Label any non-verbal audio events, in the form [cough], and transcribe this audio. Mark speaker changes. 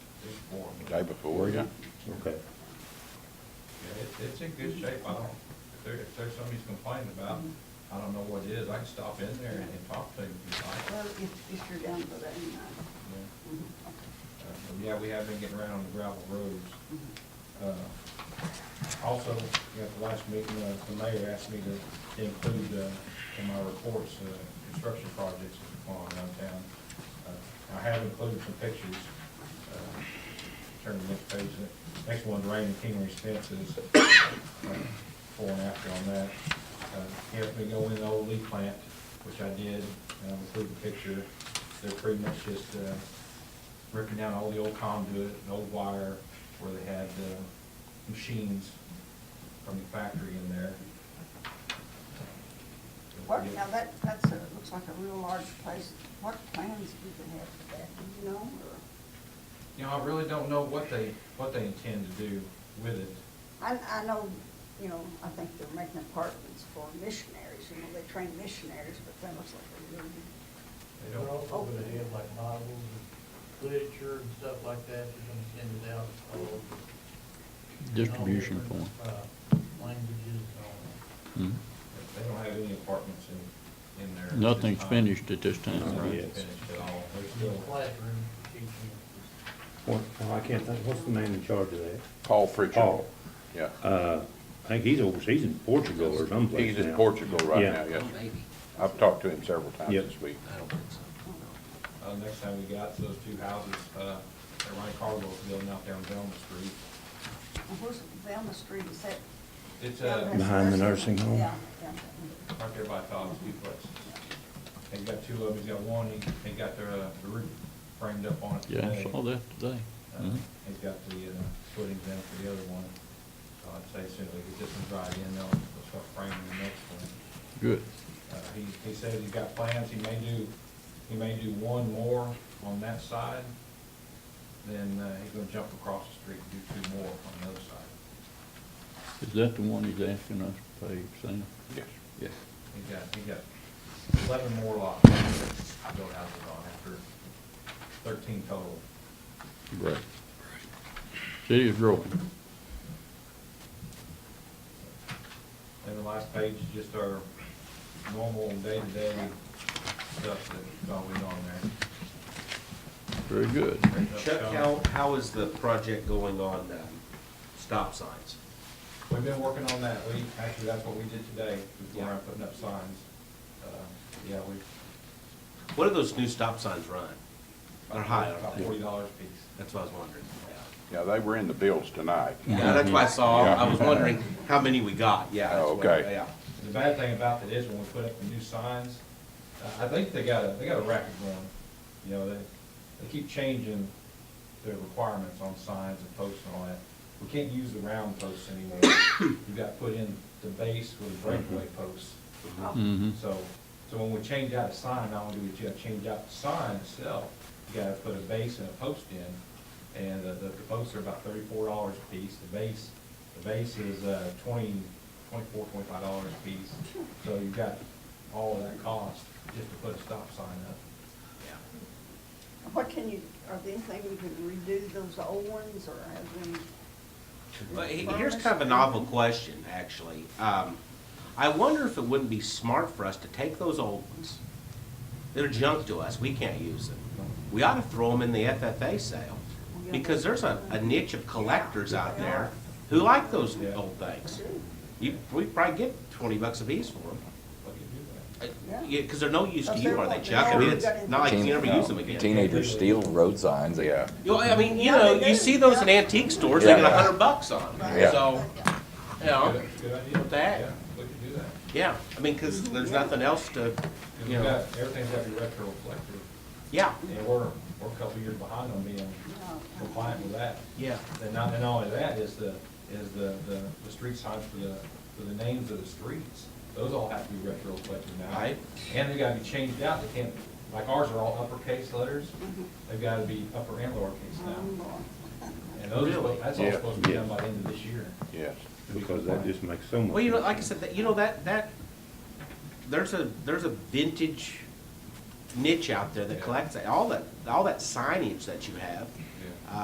Speaker 1: before.
Speaker 2: Day before, yeah.
Speaker 3: Okay.
Speaker 1: Yeah, it, it's in good shape, I don't, if there, if there's something he's complaining about, I don't know what it is, I can stop in there and and talk to him if you
Speaker 4: Well,
Speaker 1: like.
Speaker 4: if, if you're down for that, you know.
Speaker 1: Yeah.
Speaker 4: Mhm.
Speaker 1: Uh, but Yeah, we have been getting around on the gravel roads. Uh, Also, at the last meeting, uh, the mayor asked me to include uh, in my reports, uh, construction projects that's going on around town. Uh, I have included some pictures. uh, Turn to the next page. The Next one's Raymond Kingery Spence's uh, before and after on that. Uh, He asked me to go in the old leaf plant, which I did, and I included a picture. They're pretty much just uh, ripping down all the old conduit and old wire where they had uh, machines from the factory in there.
Speaker 4: What, now that, that's a, looks like a real large place. What plans do they have for that, do you know, or?
Speaker 1: You know, I really don't know what they, what they intend to do with it.
Speaker 4: I, I know, you know, I think they're making apartments for missionaries, you know, they train missionaries, but that looks like a really,
Speaker 1: They
Speaker 5: They're
Speaker 1: don't,
Speaker 5: all over the head, like models and literature and stuff like that, they're gonna send it out. all over.
Speaker 2: Distribution
Speaker 5: All
Speaker 2: point.
Speaker 5: different, uh, Languages and all that.
Speaker 2: Mhm.
Speaker 1: they don't have any apartments in, in there. at this
Speaker 2: Nothing's
Speaker 1: time.
Speaker 2: finished at this time,
Speaker 1: Nothing's
Speaker 2: right?
Speaker 3: Yes.
Speaker 1: Finished at all. They're
Speaker 5: There's a
Speaker 1: still,
Speaker 5: classroom for teaching.
Speaker 3: What, oh, I can't think, what's the man in charge of that?
Speaker 2: Paul Pritchard,
Speaker 3: Paul.
Speaker 2: yeah.
Speaker 3: Uh, I think he's overseas in Portugal or someplace
Speaker 2: He's
Speaker 3: now.
Speaker 2: in Portugal right
Speaker 3: Yeah.
Speaker 2: now, yes.
Speaker 6: Oh,
Speaker 7: Maybe.
Speaker 2: I've talked to him several times
Speaker 3: Yep.
Speaker 2: this week.
Speaker 7: I don't think so.
Speaker 1: uh, next time we got to those two houses, uh, that Ryan Cardwell's building out there on Velma Street.
Speaker 4: and where's Velma Street, is that?
Speaker 1: It's,
Speaker 4: down
Speaker 1: uh,
Speaker 4: past
Speaker 3: Behind the nursing home?
Speaker 4: Yeah, yeah.
Speaker 1: right there by Todd's duplex. They got two of them, he's got one, he, they got their, uh, the roof framed up on it
Speaker 2: Yeah,
Speaker 1: today.
Speaker 2: I saw that today.
Speaker 1: Uh,
Speaker 2: Mhm.
Speaker 1: He's got the, uh, footings in for the other one. So I'd say soon, we get this one dried in, they'll, they'll start framing the next one.
Speaker 2: Good.
Speaker 1: Uh, He, he said he's got plans, he may do, he may do one more on that side, then uh, he's gonna jump across the street and do two more on the other side.
Speaker 2: Is that the one he's asking us to pay, Sam?
Speaker 1: Yes.
Speaker 2: Yes.
Speaker 1: He got, he got eleven more lots to build houses on after thirteen total.
Speaker 2: Great. City is growing.
Speaker 1: And the last page is just our normal day-to-day stuff that's always on there.
Speaker 2: Very good.
Speaker 6: Chuck, how, how is the project going on, um, stop signs?
Speaker 1: We've been working on that. We, actually, that's what we did today, before I'm putting up signs. Uh, Yeah, we.
Speaker 6: What do those new stop signs run? They're high,
Speaker 1: About
Speaker 6: aren't they?
Speaker 1: forty dollars a piece.
Speaker 6: That's what I was wondering.
Speaker 2: Yeah, they were in the bills tonight.
Speaker 6: Yeah, that's what I saw, I was
Speaker 2: Yeah.
Speaker 6: wondering how many we got, yeah. that's
Speaker 2: Oh,
Speaker 6: what-
Speaker 2: okay.
Speaker 6: Yeah.
Speaker 1: The bad thing about that is when we put up the new signs, uh, I think they got a, they got a racket going. You know, they, they keep changing their requirements on signs and posts and all that. We can't use the round posts anymore. [coughs] You've got to put in the base with breakaway posts.
Speaker 2: Mhm.
Speaker 1: So, so when we change out a sign, not only do we gotta change out the sign itself, you gotta put a base and a post in, and the, the the posts are about thirty-four dollars a piece, the base, the base is, uh, twenty, twenty-four, twenty-five dollars a piece, so you've got all of that cost just to put a stop sign up.
Speaker 4: What can you, are there anything we can redo those old ones, or have we?
Speaker 6: Well, he- here's kind of a novel question, actually. Um, I wonder if it wouldn't be smart for us to take those old ones. They're junk to us, we can't use them. We ought to throw them in the FFA sale, because there's a, a niche of collectors out there who like those old things.
Speaker 1: Oh.
Speaker 6: You, we probably get twenty bucks a piece for them.
Speaker 1: What do you do with
Speaker 6: Uh,
Speaker 4: Yeah.
Speaker 6: Yeah, because they're no use to
Speaker 4: But
Speaker 6: you,
Speaker 4: they're
Speaker 6: are they,
Speaker 4: what they
Speaker 6: Chuck? I mean,
Speaker 4: are.
Speaker 6: it's not like you never use them again.
Speaker 8: Teenagers steal road signs, they
Speaker 2: Yeah.
Speaker 6: You know, I mean, you
Speaker 4: Yeah,
Speaker 6: know,
Speaker 4: they
Speaker 6: you
Speaker 4: do.
Speaker 6: see those in antique stores, they get
Speaker 8: Yeah.
Speaker 6: a hundred bucks on
Speaker 8: Yeah.
Speaker 6: them, so, you
Speaker 1: that?
Speaker 6: know,
Speaker 1: Good- Good idea.
Speaker 6: Oh. With that.
Speaker 1: Yeah, we could do that.
Speaker 6: yeah. I mean, because there's nothing else to,
Speaker 1: 'Cause
Speaker 6: you
Speaker 1: we've
Speaker 6: know,
Speaker 1: got, everything's gotta be retroreflective,
Speaker 6: yeah,
Speaker 1: and we're, we're a couple years behind on being compliant with that.
Speaker 6: yeah.
Speaker 1: And not, and not only that, is the, is the, the, the street signs for the, for the names of the streets. Those all have to be retrospective now.
Speaker 6: Right.
Speaker 1: And they gotta be changed out, they can't, like ours are all uppercase letters, they've gotta be upper and lowercase
Speaker 4: Oh.
Speaker 1: now. And those, are-
Speaker 6: Really?
Speaker 1: that's all
Speaker 2: Yeah.
Speaker 1: supposed to be
Speaker 3: Yeah.
Speaker 1: done by the end of this year.
Speaker 2: Yes.
Speaker 1: to be
Speaker 3: Because that
Speaker 1: compliant.
Speaker 3: just makes so much.
Speaker 6: Well, you know,
Speaker 3: sense.
Speaker 6: like I said, that you know, that, that, there's a, there's a vintage niche out there that collects that, all that, all that signage that you have.
Speaker 1: Yeah.